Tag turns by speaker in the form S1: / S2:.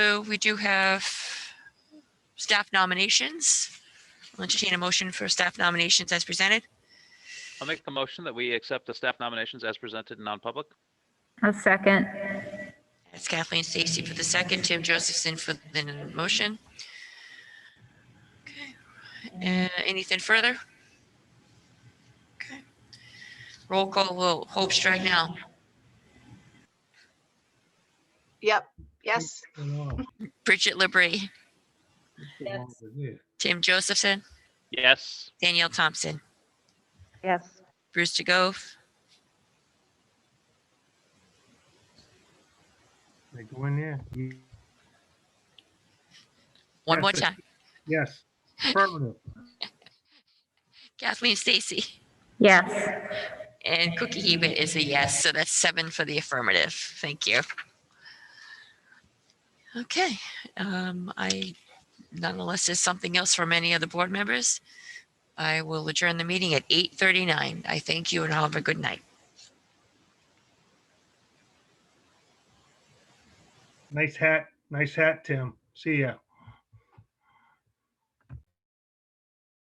S1: So we do have staff nominations. I'll entertain a motion for staff nominations as presented.
S2: I'll make the motion that we accept the staff nominations as presented in non-public.
S3: A second.
S1: That's Kathleen Stacy for the second, Tim Josephson for the motion. Okay. Uh, Anything further? Okay. Roll call vote. Hope Stragnow.
S4: Yep, yes,
S1: Bridget Labrie, Tim Josephson,
S2: Yes,
S1: Danielle Thompson,
S5: Yes,
S1: Bruce DeGove,
S6: They go in there. Mm,
S1: one more time.
S6: Yes. Affirmative.
S1: Kathleen Stacy.
S3: Yes.
S1: And Cookie Hebert is a yes, so that's seven for the affirmative. Thank you. Okay, um, I, nonetheless, there's something else from any of the board members. I will adjourn the meeting at eight thirty-nine. I thank you and have a good night.
S6: Nice hat. Nice hat, Tim. See ya.